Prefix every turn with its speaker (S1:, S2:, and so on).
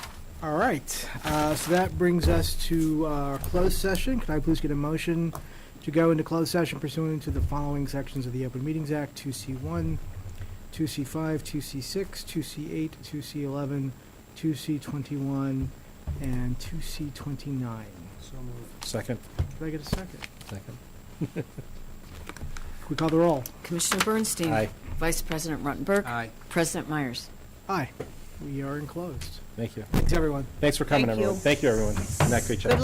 S1: All right, uh, so that brings us to our closed session. Could I please get a motion to go into closed session pursuant to the following sections of the Open Meetings Act, 2C1, 2C5, 2C6, 2C8, 2C11, 2C21, and 2C29?
S2: So moved.
S3: Second.
S1: Could I get a second?
S3: Second.
S1: Could we call the roll?
S4: Commissioner Bernstein.
S3: Aye.
S4: Vice President Ruttenberg.
S2: Aye.
S4: President Myers.
S1: Aye, we are in closed.
S3: Thank you.
S1: Thanks, everyone.
S3: Thanks for coming,
S5: Thank you.
S3: everyone. Thank you, everyone. Matt, great job.